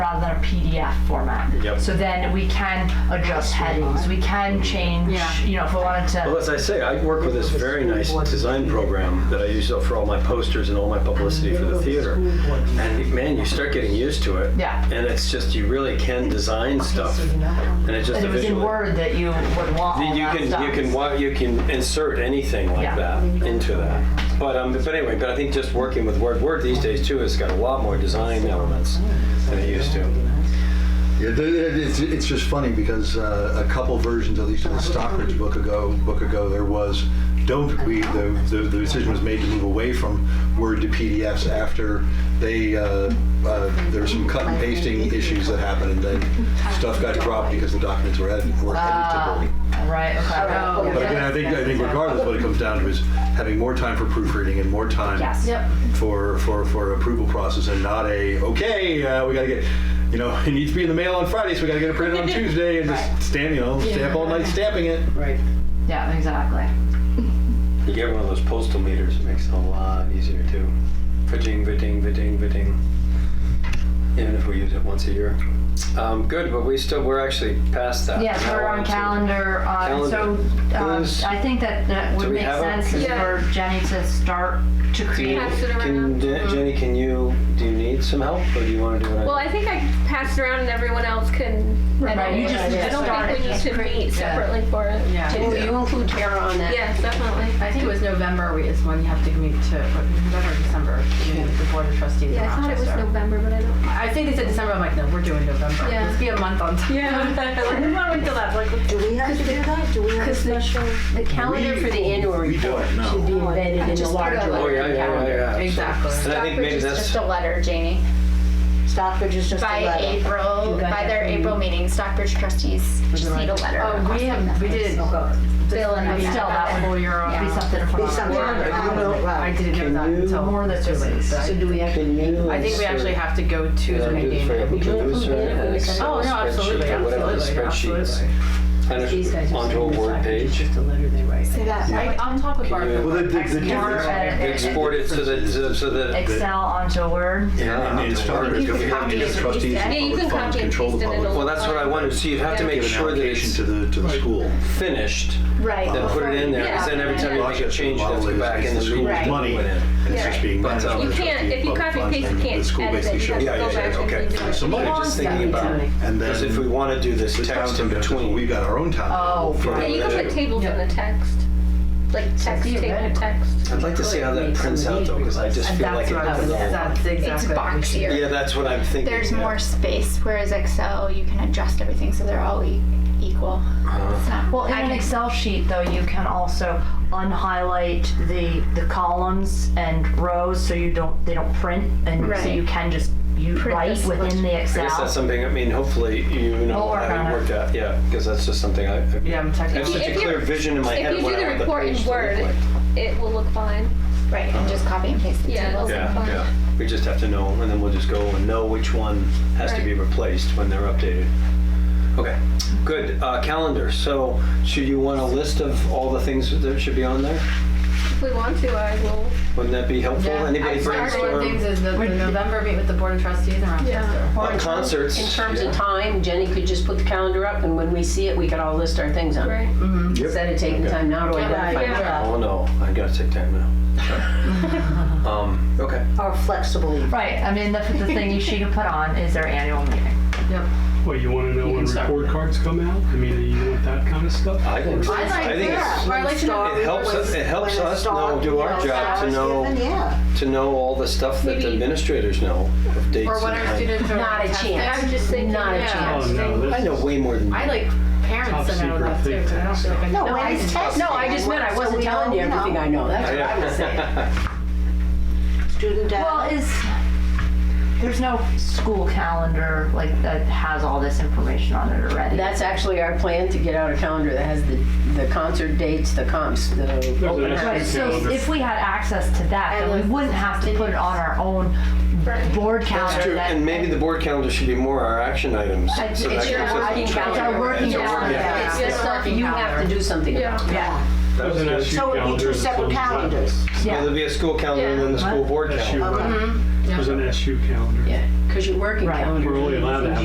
than a PDF format. Yep. So then we can adjust headings, we can change, Yeah. you know, if we wanted Well, to. as I say, I work with this very nice design program that I use for all my posters and all my publicity for the theater. And man, you start getting used to it. Yeah. And it's just, you really can design stuff. And it's just And a it was in visual. Word that you would want all You that can, stuff. you can, wa- you can insert anything like Yeah. that into that. But, um, but anyway, but I think just working with Word, Word these days too has got a lot more design elements than it used to. Yeah, th- th- it's, it's just funny because uh, a couple versions, at least of the Stockbridge book ago, book ago, there was don't we the, the, the decision was made to move away from Word to PDFs after they uh, uh, there were some cut and pasting issues that happened, and then stuff got dropped because the documents were edit, were editable. Right, Oh, okay. But again, I think I think regardless, what it comes down to is having more time for proofreading and more time Yes. Yep. for for for approval process and not a okay uh, we got to get you know it needs to be in the mail on Friday so we got to get it printed on Tuesday and just stamp you know stamp all night stamping it. Right. Yeah, exactly. You get one of those postal meters, it makes it a lot easier too. Fitting, fitting, fitting, fitting. Even if we use it once a year. Um, good, but we still, we're actually past that. Yes, Now we're on to- calendar, uh, so um, Is- I think that that Do would we make have a- sense is Yeah. for Jenny to start to create. Pass it Can, around. Je- Jenny, can you, do you need some help or do you want to do it? Well, I think I passed around and everyone else can. Right, you just I don't start think we need it. to meet Yeah. separately for it. Yeah, Will you include Tara on that? Yes, definitely. I think it was November we- is when you have to meet to, what, November, or December, you meet with the board of trustees in Yeah, I thought it was Rochester. November, but I don't. I think they said December, I'm like, no, we're doing November. Yeah. Let's be a month on time. Yeah. Like, we want to wait till that, like, Do we have to do that? Do we have a special? The calendar for the annual We don't, report no. should be embedded in the Just put a larger. Oh, yeah, yeah, yeah, yeah. Exactly. And I think Stockbridge maybe is that's, just a letter, Janie. Stockbridge is just a By letter. April, You got by that their from- April meeting, Stockbridge trustees just need a letter. Oh, we requesting have, that. we did. Bill and we I. still that whole year Be on. something for. Be something. I Right. didn't know that until. More that's too late, just- so I- So do we have to can you? I think we actually have to go to the meeting. and meet with- Oh, no, absolutely, Whatever the absolutely, spreadsheets. absolutely. These guys And are onto a saying Word it's page. Just a letter they write. Say that. I, I'll talk with Can Barbara. you- Well, the, the, the difference. Export it so that, so- so that. Excel onto Word. And, and it's Yeah. talking You about can we have to get trustees Yeah, you and can public funds copy and control the paste it public. in Well, that's what I wanted to see. You have to make Give an sure that allocation it's to the to the school. finished, Right. then put it in there, because then every time you make a Rochester change, you have to model go is- back is and the then school's re- money, put it in. and it's just being But, managed um, by You the can't, trustee if you of public copy and funds, paste, and you The can't school edit basically it. You should. have Yeah, to go yeah, back okay. and redo it. So I'm money just thinking about, And then because if we want to do this the text town's in objective, well, between, We've got our own town. Oh, for Yeah, you that can too. put tables in the text, like text table theoretical. text. I'd like to see how that prints out though, because I just And feel like that's it what I comes was, along. that's exactly. It's what we should do. boxier. Yeah, that's what I'm thinking. There's yeah. more space, whereas Excel, you can adjust everything so they're all e- equal. It's not- Well, in I an can- Excel sheet, though, you can also unhighlight the the columns and rows so you don't they don't print, and so Right. you can just you Print write this within much. the I guess that's Excel. something, I mean, hopefully, you We'll know, work on it. having worked out, yeah, because that's just something I, I Yeah, I'm I have checking. such a If you- clear vision in my If head you of what do the I want the report page to in look Word, like. it will look fine. Right, and just copy and paste the Yeah, tables. it'll Yeah, look fine. yeah, we just have to know, and then we'll just go and know which one has to be replaced when they're updated. Okay, good, uh, calendar, so should you want a list of all the things that should be on there? If we want to, I will. Wouldn't that be helpful? Yeah, Anybody I started with things brainstorm? is the, the November meet with the board of trustees in Rochester. Uh, Concerts. In terms yeah. of time, Jenny could just put the calendar up, and when we see it, we could all list our things on it. Right. Instead of taking time now to identify. Yeah. Oh, no, I gotta take time now. Um, okay, Or flexibly. Right. I mean, the, the thing she can put on is their annual meeting. Yep. Well, you want to know You when can start report with it. cards come out? I mean, you want that kind of stuff? I think, I like I think it's- Or I like to know. it helps, us. it helps us know, do our job to know, Yeah. to know all the stuff that the Maybe- administrators know of dates Or what and our times. students are. Not a testing. chance. I'm just thinking. Not a yeah. chance. Oh, no, this I know way more than you. I like parents Top to know that too, secret 'cause I don't feel like I. No, I when it's didn't- tested. No, I just meant I wasn't telling you everything I know. That's what I was saying. Student Well, data. is there's no school calendar like that has all this information on it already. That's actually our plan to get out a calendar that has the, the concert dates, the comps, the There's open an Right, house. extra so calendar. if we had access to that, then we wouldn't have to put it on our own board calendar. That's true, that- and maybe the board calendar should be more our action items. It's- so that it's your gives us- working It's our calendar. working It's our calendar. working- It's Yeah. the stuff you have to do something about. Yeah, That was There's an good. SU So it'd be calendar two and separate some- calendars. Yeah, yeah. There'd be a school calendar and then the school board SU, calendar. Mm-hmm. There's uh, an SU calendar. Yeah, because your working Right. calendar. We're only allowed